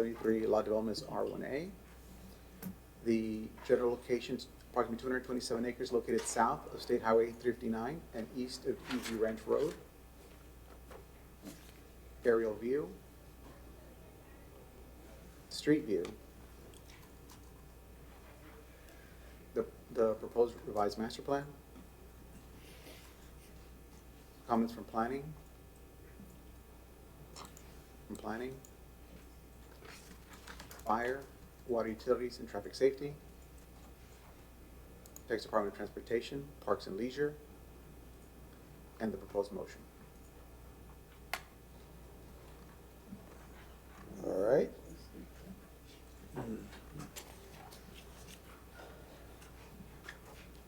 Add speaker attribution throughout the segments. Speaker 1: 73 lot development is R1A. The general location is approximately 227 acres located south of State Highway 359 and east of EG Ranch Road. Aerial view. Street view. The, the proposed revised master plan. Comments from planning? From planning? Fire, water utilities and traffic safety. Texas Department of Transportation, Parks and Leisure. And the proposed motion.
Speaker 2: All right.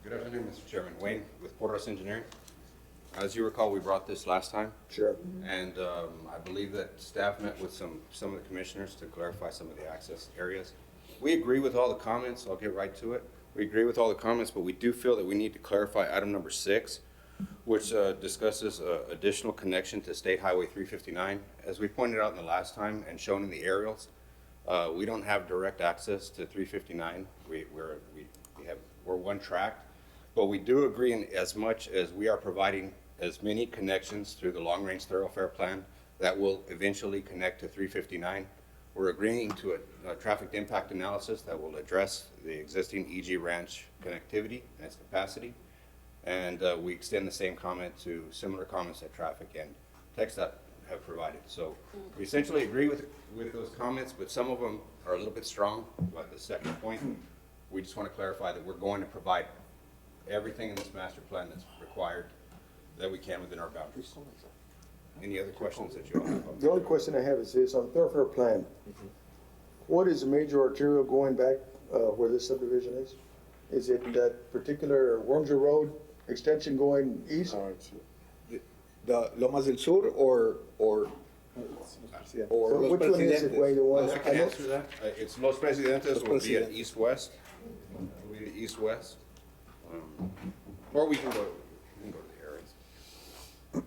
Speaker 3: Good afternoon, Mr. Chairman. Wayne with Porterhouse Engineering. As you recall, we brought this last time,
Speaker 2: Sure.
Speaker 3: and um, I believe that staff met with some, some of the commissioners to clarify some of the access areas. We agree with all the comments, I'll get right to it. We agree with all the comments, but we do feel that we need to clarify item number six, which uh, discusses uh, additional connection to State Highway 359. As we pointed out in the last time and shown in the aerials, uh, we don't have direct access to 359. We, we're, we we have, we're one track. But we do agree in as much as we are providing as many connections through the Long Range Thoroughfare Plan that will eventually connect to 359. We're agreeing to a, a traffic impact analysis that will address the existing EG Ranch connectivity and its capacity. And uh, we extend the same comment to similar comments that traffic and TechStop have provided. So we essentially agree with, with those comments, but some of them are a little bit strong about the second point. We just want to clarify that we're going to provide everything in this master plan that's required that we can within our boundaries. Any other questions that you all have?
Speaker 2: The only question I have is this, on thoroughfare plan, what is the major arterial going back uh, where this subdivision is? Is it that particular Wormsor Road extension going east?
Speaker 4: The Lomas del Sur or, or,
Speaker 2: So
Speaker 4: or Los
Speaker 2: which one is it, Wayne,
Speaker 4: Presidentes?
Speaker 2: the one?
Speaker 3: I can answer that. Uh, It's Los Presidentes
Speaker 4: Los
Speaker 3: will be an
Speaker 4: Presidentes.
Speaker 3: east-west, will be the east-west. Um, Or we can go, we can go to the areas.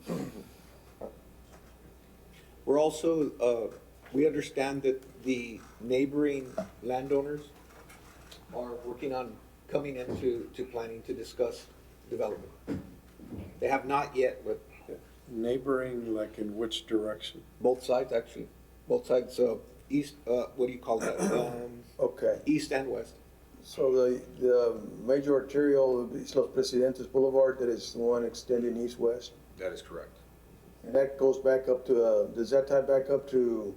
Speaker 4: We're also, uh, we understand that the neighboring landowners are working on coming into, to planning to discuss development. They have not yet, but
Speaker 5: Neighboring, like in which direction?
Speaker 4: both sides actually, both sides, uh, east, uh, what do you call that? Um,
Speaker 2: Okay,
Speaker 4: East and west.
Speaker 2: so the, the major arterial is Los Presidentes Boulevard, that is the one extending east-west?
Speaker 3: That is correct.
Speaker 2: And that goes back up to, uh, does that tie back up to,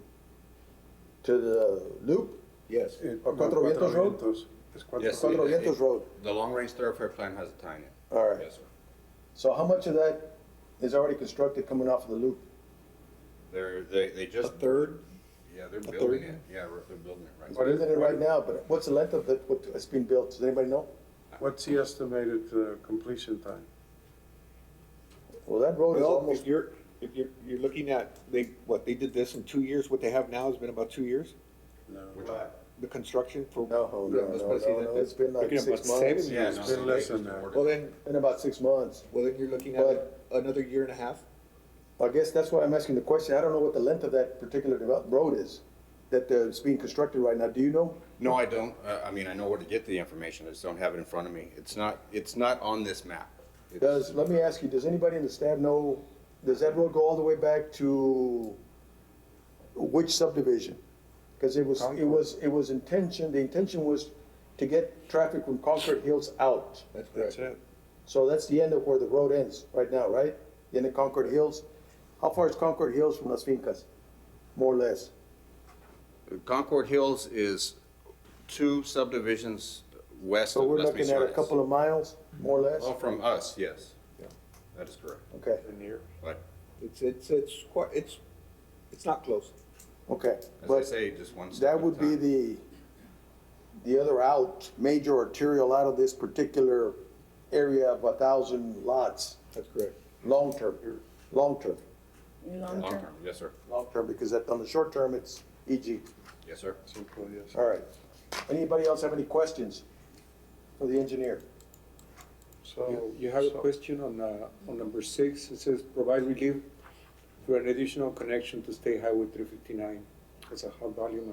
Speaker 2: to the loop?
Speaker 4: Yes,
Speaker 5: It-
Speaker 2: Or Cuatro
Speaker 5: no,
Speaker 2: Vientos Road?
Speaker 5: Vientos. Es Cuatro-
Speaker 3: Yes.
Speaker 2: Cuatro
Speaker 3: it- it-
Speaker 2: Vientos Road?
Speaker 3: The long-range thoroughfare plan has a tie-in.
Speaker 2: All right.
Speaker 3: Yes, sir.
Speaker 2: So how much of that is already constructed coming off of the loop?
Speaker 3: They're, they, they
Speaker 4: a
Speaker 3: just,
Speaker 4: third,
Speaker 3: yeah, they're
Speaker 4: third?
Speaker 3: building it. Yeah, we're- they're building it right.
Speaker 2: What is it right now, but what's the length of it, what has been built? Does anybody know?
Speaker 5: What's the estimated uh, completion time?
Speaker 2: Well, that road is
Speaker 4: Well, if
Speaker 2: almost,
Speaker 4: you're, if you're, you're looking at, they, what, they did this in two years, what they have now has been about two years?
Speaker 5: No.
Speaker 3: Which one?
Speaker 4: The construction for.
Speaker 2: no, no, no,
Speaker 4: Los
Speaker 2: no, no,
Speaker 4: Presidentes?
Speaker 2: it's been like
Speaker 4: Looking at
Speaker 2: six
Speaker 4: about seven
Speaker 2: months.
Speaker 4: years.
Speaker 3: Yeah,
Speaker 5: It's
Speaker 3: no,
Speaker 5: been
Speaker 3: they
Speaker 5: less
Speaker 3: just
Speaker 5: than that.
Speaker 3: ordered
Speaker 4: Well,
Speaker 3: it.
Speaker 4: then,
Speaker 2: Been about six months.
Speaker 4: well, then you're looking at
Speaker 2: But-
Speaker 4: another year and a half.
Speaker 2: I guess that's why I'm asking the question. I don't know what the length of that particular develop, road is that uh, is being constructed right now. Do you know?
Speaker 3: No, I don't. Uh, I mean, I know where to get the information. I just don't have it in front of me. It's not, it's not on this map. It's-
Speaker 2: Does, let me ask you, does anybody in the staff know, does that road go all the way back to which subdivision? Because it was, it was, it was intention, the intention was to get traffic from Concord Hills out.
Speaker 4: That's
Speaker 5: That's
Speaker 4: correct.
Speaker 5: it.
Speaker 2: So that's the end of where the road ends right now, right? The end of Concord Hills. How far is Concord Hills from Las Fincas? More or less?
Speaker 3: Concord Hills is two subdivisions west
Speaker 2: So
Speaker 3: of
Speaker 2: we're
Speaker 3: Las
Speaker 2: looking at a
Speaker 3: Misiones.
Speaker 2: couple of miles, more or less?
Speaker 3: Well, from us, yes. That is correct.
Speaker 2: Okay,
Speaker 3: But
Speaker 4: It's, it's, it's quite, it's, it's not close.
Speaker 2: okay.
Speaker 3: as I
Speaker 2: But
Speaker 3: say, just one step
Speaker 2: That
Speaker 3: at a
Speaker 2: would be
Speaker 3: time.
Speaker 2: the, the other out, major arterial out of this particular area of a thousand lots,
Speaker 4: That's correct.
Speaker 2: long term, long term,
Speaker 6: Long
Speaker 3: Long
Speaker 6: term.
Speaker 3: term, yes, sir.
Speaker 2: long term, because that, on the short term, it's EG.
Speaker 3: Yes, sir.
Speaker 5: Simple, yes.
Speaker 2: All right. Anybody else have any questions for the engineer?
Speaker 5: So.
Speaker 7: You have a
Speaker 5: so-
Speaker 7: question on, uh, on number six, it says provide relief through an additional connection to State Highway three fifty-nine. That's a high volume